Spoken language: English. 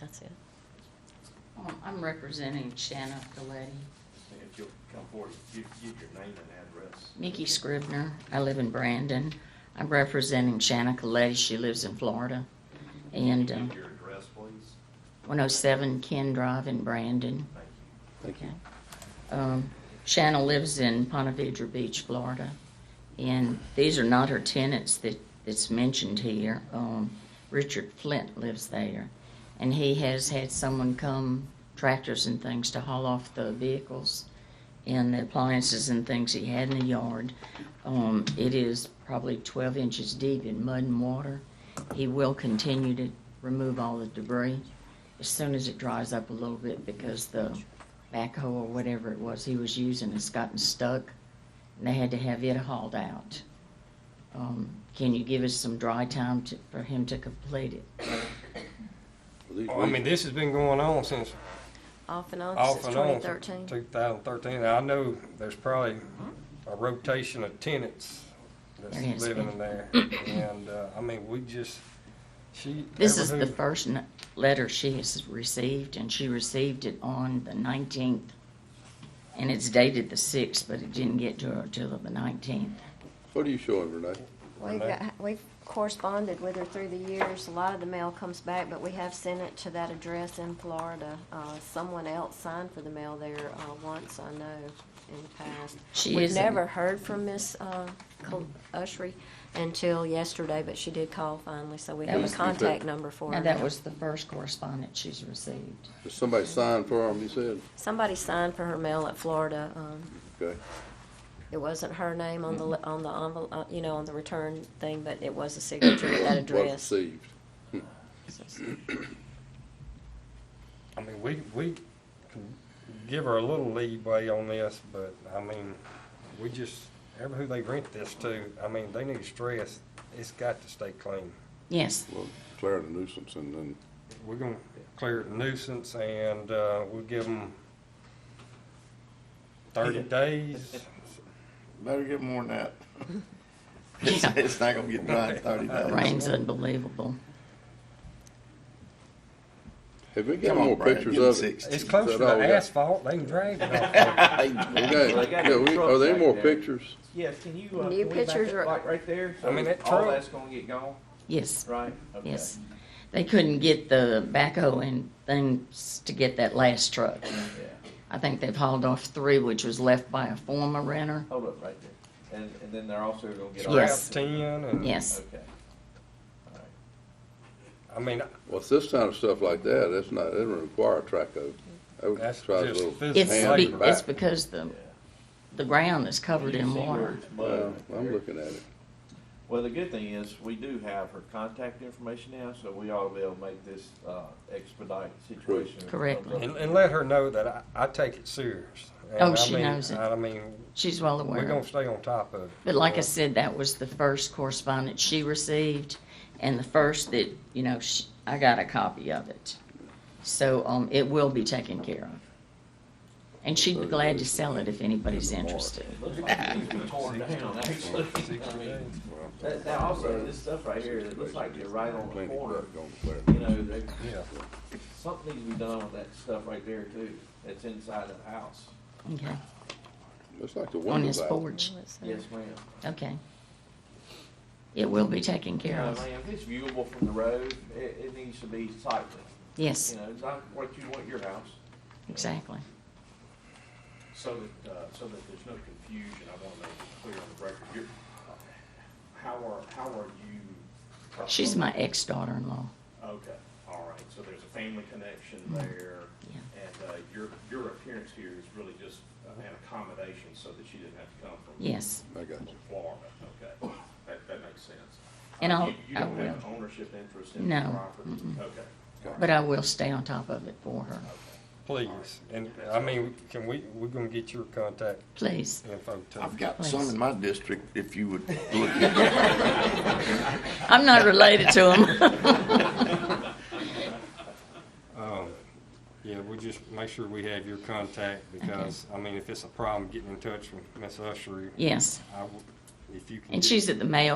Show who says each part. Speaker 1: that's it.
Speaker 2: Um, I'm representing Shanna Galletti.
Speaker 3: And if you'll come forward, give, give your name and address.
Speaker 2: Nikki Scribner, I live in Brandon. I'm representing Shanna Galletti, she lives in Florida. And um,
Speaker 3: Give your address, please.
Speaker 2: 107 Ken Drive in Brandon.
Speaker 3: Thank you.
Speaker 4: Thank you.
Speaker 2: Um, Shanna lives in Ponte Vedra Beach, Florida. And these are not her tenants that, that's mentioned here. Um, Richard Flint lives there. And he has had someone come, tractors and things, to haul off the vehicles and the appliances and things he had in the yard. Um, it is probably 12 inches deep in mud and water. He will continue to remove all the debris as soon as it dries up a little bit because the backhoe or whatever it was he was using has gotten stuck and they had to have it hauled out. Um, can you give us some dry time to, for him to complete it?
Speaker 4: Well, these
Speaker 5: Well, Oh, I mean,
Speaker 4: weeks-
Speaker 5: this has been going on since,
Speaker 1: Off and on
Speaker 5: off
Speaker 1: since
Speaker 5: and on,
Speaker 1: 2013.
Speaker 5: two thousand thirteen. I know there's probably a rotation of tenants
Speaker 2: There has
Speaker 5: that's living
Speaker 2: been.
Speaker 5: in there. And, uh, I mean, we just, she.
Speaker 2: This
Speaker 5: ever
Speaker 2: is the
Speaker 5: who-
Speaker 2: first n- letter she has received and she received it on the 19th. And it's dated the 6th, but it didn't get to her until the 19th.
Speaker 4: What are you showing, Renee?
Speaker 1: We've got, we've corresponded with her through the years. A lot of the mail comes back, but we have sent it to that address in Florida. Uh, someone else signed for the mail there, uh, once, I know, in the past.
Speaker 2: She
Speaker 1: We've
Speaker 2: isn't-
Speaker 1: never heard from Miss, uh, Col- Ushry until yesterday, but she did call finally, so we
Speaker 2: That
Speaker 1: have
Speaker 2: was
Speaker 1: a
Speaker 2: the-
Speaker 1: contact number for her.
Speaker 2: Now, that
Speaker 1: now.
Speaker 2: was the first correspondence she's received.
Speaker 4: Did somebody sign for them, you said?
Speaker 1: Somebody signed for her mail at Florida, um,
Speaker 4: Okay.
Speaker 1: It wasn't her name on the, li- on the envelope, uh, you know, on the return thing, but it was a signature at that
Speaker 4: Was
Speaker 1: address.
Speaker 4: received.
Speaker 5: I mean, we, we can give her a little leeway on this, but, I mean, we just, ever who they rent this to, I mean, they need to stress, it's got to stay clean.
Speaker 2: Yes,
Speaker 4: Well, declaring a nuisance and then,
Speaker 5: We're gonna clear the nuisance and, uh, we'll give them thirty days.
Speaker 6: Better get more than that. It's, it's not gonna get dry in thirty days.
Speaker 2: rain's unbelievable.
Speaker 4: have we got
Speaker 6: Come on,
Speaker 4: more
Speaker 6: Brad,
Speaker 4: pictures
Speaker 6: give 'em
Speaker 4: of it?
Speaker 6: six.
Speaker 5: It's close to
Speaker 4: Is that all we
Speaker 5: the
Speaker 4: got?
Speaker 5: asphalt, they can drag it off. there.
Speaker 4: Okay,
Speaker 7: Well, they got
Speaker 4: yeah,
Speaker 7: the
Speaker 4: we,
Speaker 7: truck
Speaker 4: are there
Speaker 7: back
Speaker 4: more
Speaker 7: there.
Speaker 4: pictures?
Speaker 7: Yeah, can you,
Speaker 1: New
Speaker 7: uh, can we back
Speaker 1: pictures are-
Speaker 7: up, like, right there?
Speaker 5: I mean,
Speaker 7: So
Speaker 5: that
Speaker 7: All
Speaker 5: truck-
Speaker 7: that's gonna get gone,
Speaker 2: Yes,
Speaker 7: right? Okay.
Speaker 2: yes. They couldn't get the backhoe and things to get that last truck.
Speaker 7: Yeah,
Speaker 2: I think they've hauled off three, which was left by a former renter.
Speaker 7: hold up right there. And, and then they're also gonna get. all
Speaker 5: Trap
Speaker 2: Yes.
Speaker 7: that.
Speaker 5: ten and.
Speaker 2: Yes,
Speaker 7: Okay. All right.
Speaker 5: I mean,
Speaker 4: Well, it's this kind of stuff like that, that's not, it doesn't require a track of. I would
Speaker 5: that's
Speaker 4: try a
Speaker 5: just
Speaker 4: little.
Speaker 5: physical
Speaker 2: it's
Speaker 4: hand
Speaker 2: be,
Speaker 4: in
Speaker 5: labor.
Speaker 2: it's
Speaker 4: back.
Speaker 2: because the the ground is covered
Speaker 7: You
Speaker 2: in
Speaker 7: see where
Speaker 2: water.
Speaker 7: it's mud
Speaker 4: Well,
Speaker 7: right
Speaker 4: Uh, I'm
Speaker 7: there.
Speaker 4: looking at it.
Speaker 7: Well, the good thing is, we do have her contact information now, so we ought to be able to make this, uh, expedite situation.
Speaker 2: Correctly.
Speaker 5: And, and let her know that I, I take it serious. And
Speaker 2: Oh,
Speaker 5: I
Speaker 2: she
Speaker 5: mean,
Speaker 2: knows it.
Speaker 5: I mean,
Speaker 2: She's well
Speaker 5: we're
Speaker 2: aware.
Speaker 5: gonna
Speaker 2: of it.
Speaker 5: stay on top of it.
Speaker 2: But like I
Speaker 5: Uh,
Speaker 2: said, that was the first correspondence she received, and the first that you know she, I got a copy of it. So um, it will be taken care of, and she'd be glad to sell it if anybody's interested.
Speaker 7: Looks like it needs to be torn down, actually. I mean, That, that also, this stuff right here, it looks like you're right on the
Speaker 4: Plenty of
Speaker 7: corner.
Speaker 4: that gonna declare.
Speaker 7: You know, they,
Speaker 5: Yeah,
Speaker 7: something needs to be done with that stuff right there too, that's inside of the house.
Speaker 2: Okay,
Speaker 4: It's like the
Speaker 2: on
Speaker 4: windows
Speaker 2: his
Speaker 4: out.
Speaker 2: porch.
Speaker 7: Yes, ma'am.
Speaker 2: Okay. It will be taken care
Speaker 7: Yeah,
Speaker 2: of.
Speaker 7: ma'am, if it's viewable from the road, it, it needs to be sightly,
Speaker 2: Yes,
Speaker 7: you know, not what you want your house.
Speaker 2: exactly.
Speaker 3: So that, uh, so that there's no confusion, I want to make it clear on the record, you're, uh, how are, how are you?
Speaker 2: She's my ex-daughter-in-law.
Speaker 3: Okay, all right, so there's a family connection there,
Speaker 2: Mm-hmm. Yeah.
Speaker 3: and, uh, your, your appearance here is really just an accommodation so that she didn't have to come from.
Speaker 2: Yes,
Speaker 4: I got you.
Speaker 3: from Florida, okay, that, that makes sense.
Speaker 2: And
Speaker 3: Uh,
Speaker 2: I'll-
Speaker 3: you- You
Speaker 2: I
Speaker 3: don't have
Speaker 2: will.
Speaker 3: an ownership interest in the
Speaker 2: No,
Speaker 3: property?
Speaker 2: mm-mm.
Speaker 3: Okay,
Speaker 2: but I will stay on top of it for her.
Speaker 5: please. And, I mean, can we, we're gonna get your contact
Speaker 2: Please.
Speaker 5: info too.
Speaker 6: I've got some in my district, if you would look.
Speaker 2: I'm not related to him.
Speaker 5: Um, yeah, we'll just make sure we have your contact because, I mean, if it's a problem getting in touch with Miss Ushery,
Speaker 2: Yes,
Speaker 5: I, will- if you can.
Speaker 2: and
Speaker 5: get-
Speaker 2: she's at the Mayo